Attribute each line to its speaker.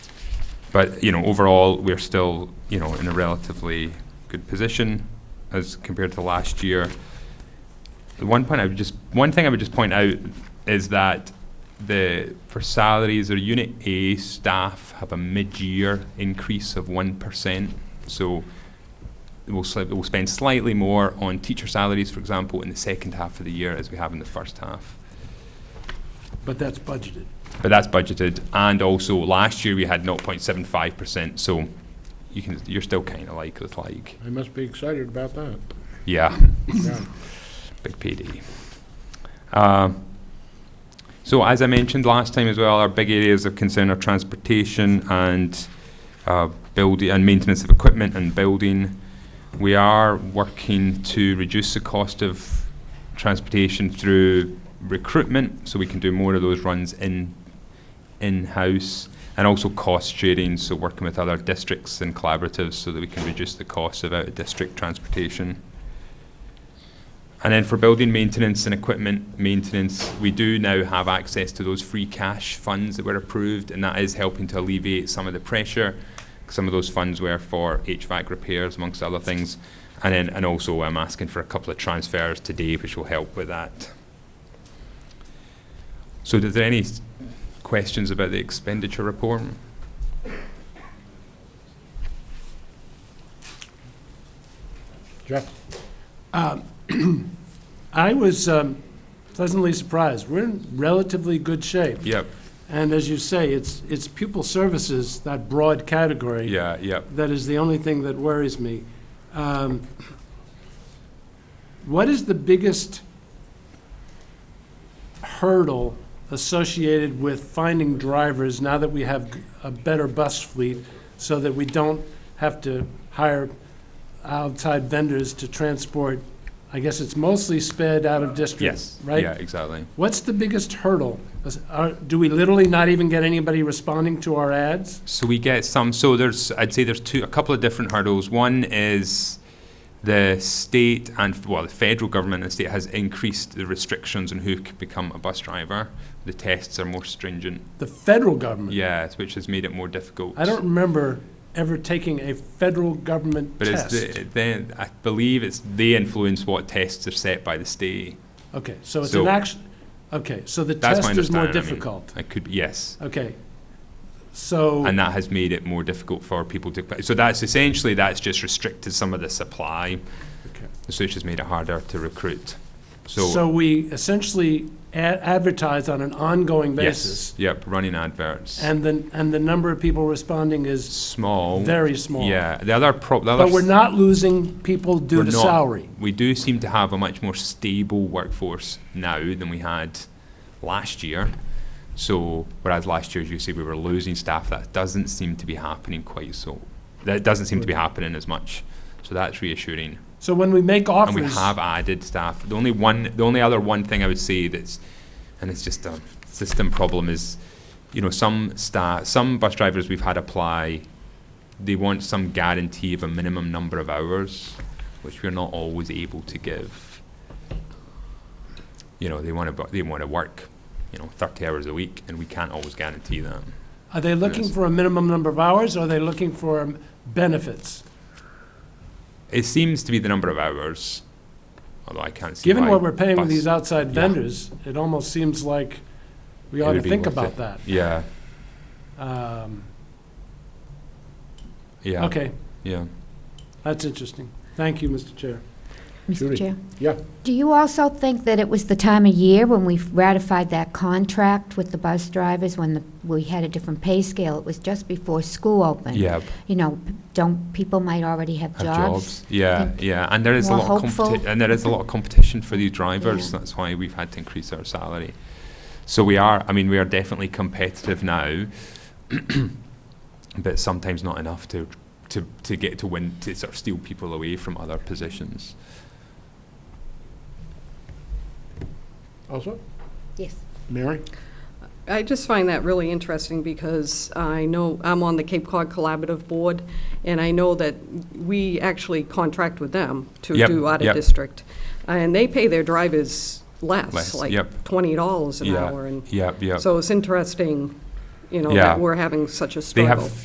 Speaker 1: But, you know, overall, we're still, you know, in a relatively good position as compared to last year. The one point I would just, one thing I would just point out is that the, for salaries, our Unit A staff have a mid-year increase of one percent. So we'll, sli- we'll spend slightly more on teacher salaries, for example, in the second half of the year as we have in the first half.
Speaker 2: But that's budgeted.
Speaker 1: But that's budgeted, and also last year we had 0.75%, so you can, you're still kind of like with like,
Speaker 2: I must be excited about that.
Speaker 1: yeah,
Speaker 2: Yeah.
Speaker 1: big PD. Um, So as I mentioned last time as well, our big areas of concern are transportation and uh, building and maintenance of equipment and building. We are working to reduce the cost of transportation through recruitment, so we can do more of those runs in in-house, and also cost sharing, so working with other districts and collaboratives so that we can reduce the cost of out-of-district transportation. And then for building maintenance and equipment maintenance, we do now have access to those free cash funds that were approved, and that is helping to alleviate some of the pressure. Some of those funds were for HVAC repairs, amongst other things. And then, and also I'm asking for a couple of transfers today, which will help with that. So is there any s- questions about the expenditure report?
Speaker 2: Jeff?
Speaker 3: I was um, pleasantly surprised. We're in relatively good shape.
Speaker 1: Yep,
Speaker 3: And as you say, it's, it's pupil services, that broad category.
Speaker 1: yeah, yep.
Speaker 3: That is the only thing that worries me. Um, What is the biggest hurdle associated with finding drivers now that we have a better bus fleet so that we don't have to hire outside vendors to transport? I guess it's mostly sped out of district,
Speaker 1: Yes,
Speaker 3: right?
Speaker 1: yeah, exactly.
Speaker 3: What's the biggest hurdle? Is- are- Do we literally not even get anybody responding to our ads?
Speaker 1: So we get some. So there's, I'd say there's two, a couple of different hurdles. One is the state and well, the federal government and state has increased the restrictions on who could become a bus driver. The tests are more stringent.
Speaker 3: The federal government?
Speaker 1: Yeah, which has made it more difficult.
Speaker 3: I don't remember ever taking a federal government
Speaker 1: But it's
Speaker 3: test.
Speaker 1: the, then I believe it's they influence what tests are set by the state.
Speaker 3: Okay, so it's
Speaker 1: So-
Speaker 3: an action, okay, so the
Speaker 1: That's my
Speaker 3: test is more
Speaker 1: understanding, I mean.
Speaker 3: difficult.
Speaker 1: I could yes.
Speaker 3: Okay, so,
Speaker 1: and that has made it more difficult for people to. So that's essentially that's just restricted some of the supply,
Speaker 3: Okay.
Speaker 1: so it's just made it harder to recruit. So,
Speaker 3: so we essentially a- advertise on an ongoing
Speaker 1: yes,
Speaker 3: basis.
Speaker 1: yep, running adverts.
Speaker 3: And then, and the number of people responding is
Speaker 1: small.
Speaker 3: very small.
Speaker 1: Oh, Yeah, the other pro. The other
Speaker 3: But we're
Speaker 1: s-
Speaker 3: not losing people due
Speaker 1: we're
Speaker 3: to
Speaker 1: not.
Speaker 3: salary.
Speaker 1: We do seem to have a much more stable workforce now than we had last year. So whereas last year, as you say, we were losing staff, that doesn't seem to be happening quite so. That doesn't seem to be happening as much. So that's reassuring.
Speaker 3: So when we make
Speaker 1: and
Speaker 3: offers.
Speaker 1: we have added staff. The only one, the only other one thing I would say that's, and it's just a system problem is, you know, some staff, some bus drivers we've had apply, they want some guarantee of a minimum number of hours, which we're not always able to give. You know, they want to, they want to work, you know, thirty hours a week, and we can't always guarantee that.
Speaker 3: Are they looking
Speaker 1: Yes.
Speaker 3: for a minimum number of hours, or are they looking for um, benefits?
Speaker 1: It seems to be the number of hours, although I can't see
Speaker 3: Given
Speaker 1: why
Speaker 3: what we're paying with
Speaker 1: bus-
Speaker 3: these outside
Speaker 1: yeah.
Speaker 3: vendors, it almost seems like we
Speaker 1: It
Speaker 3: ought
Speaker 1: would
Speaker 3: to
Speaker 1: be
Speaker 3: think
Speaker 1: worth
Speaker 3: about
Speaker 1: it.
Speaker 3: that.
Speaker 1: Yeah,
Speaker 3: Um,
Speaker 1: yeah.
Speaker 3: Okay,
Speaker 1: Yeah.
Speaker 3: that's interesting. Thank you, Mr. Chair.
Speaker 2: Judy.
Speaker 4: Mr. Chair,
Speaker 2: Yeah.
Speaker 4: do you also think that it was the time of year when we ratified that contract with the bus drivers, when the- we had a different pay scale? It was just before school opened.
Speaker 1: Yeah,
Speaker 4: You know, p- don't, people might already have
Speaker 1: have
Speaker 4: jobs.
Speaker 1: jobs. Yeah, yeah, and there is a
Speaker 4: more
Speaker 1: lot of competi-
Speaker 4: hopeful.
Speaker 1: and there is a lot of competition for these drivers.
Speaker 4: Yeah.
Speaker 1: That's why we've had to increase our salary. So we are. I mean, we are definitely competitive now, but sometimes not enough to to to get to win to sort of steal people away from other positions.
Speaker 2: Also?
Speaker 4: Yes.
Speaker 2: Mary?
Speaker 5: I just find that really interesting because I know, I'm on the Cape Cod Collaborative Board, and I know that we actually contract with them to
Speaker 1: Yep,
Speaker 5: do
Speaker 1: yep.
Speaker 5: out-of-district. And they pay their drivers
Speaker 1: Less,
Speaker 5: less, like
Speaker 1: yep.
Speaker 5: $20 an
Speaker 1: Yeah,
Speaker 5: hour. and
Speaker 1: yeah, yeah.
Speaker 5: So it's interesting, you know,
Speaker 1: Yeah.
Speaker 5: that we're having such a
Speaker 1: they
Speaker 5: struggle.
Speaker 1: have